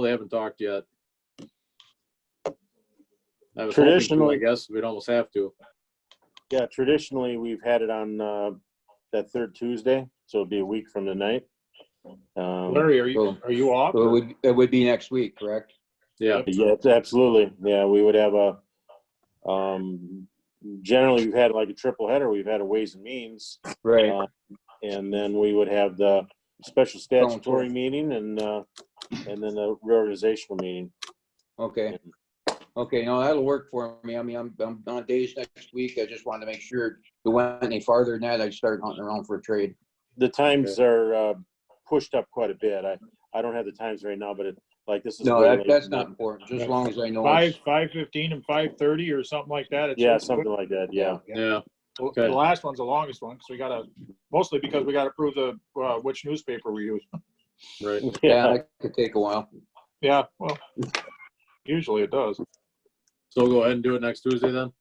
They haven't talked yet. I was hoping to, I Traditionally- guess. We'd almost have to. Yeah, traditionally, we've had it on uh, that third Tuesday, so it'd be a week from tonight. Um, Larry, are you, Well- are you off? So it would, it would be next week, correct? Yeah, Yeah, it's absolutely. Yeah, we would have a, um, generally, we've had like a triple header. We've had a Ways and Means, Right. uh, and then we would have the special forth. statutory meeting and, uh, and then the reorganizational meeting. Okay. Okay, no, that'll work for me. I mean, I'm, I'm on days next week. I just wanted to make sure if it went any farther than that, I'd start hunting around for a trade. The times are uh, pushed up quite a bit. I, I don't have the times right now, but it, like, this is. No, way that, late that's in the- not important, just as long as I know. Five, it's- five fifteen and five thirty or something like that. It's- Yeah, something like that, yeah. yeah. Well, okay. The last one's the longest one, because we gotta, mostly because we gotta prove the, uh, which newspaper we use. Right. Yeah, that could take a while. Yeah, well, usually it does. Uh, So we'll go ahead and do it next Tuesday then?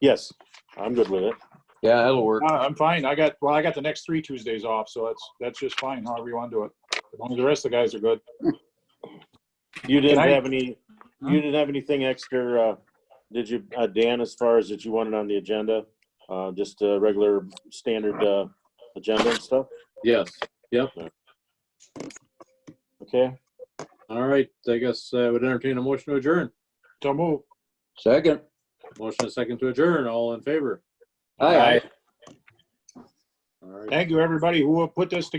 Yes, I'm good with it. Yeah, that'll work. Uh, I'm fine. I got, well, I got the next three Tuesdays off, so that's, that's just fine, however you want to do it. As long as the rest of the guys are good. You didn't Can I- have any, you didn't have anything extra, uh, did you, uh, Dan, as far as that you wanted on the agenda? Uh, just a regular standard, uh, agenda and stuff? Yes. Okay, All right. I guess I would entertain a motion to adjourn. So move. Second. Motion and second to adjourn. All in favor? Aye. All right. Thank you, everybody who put this together.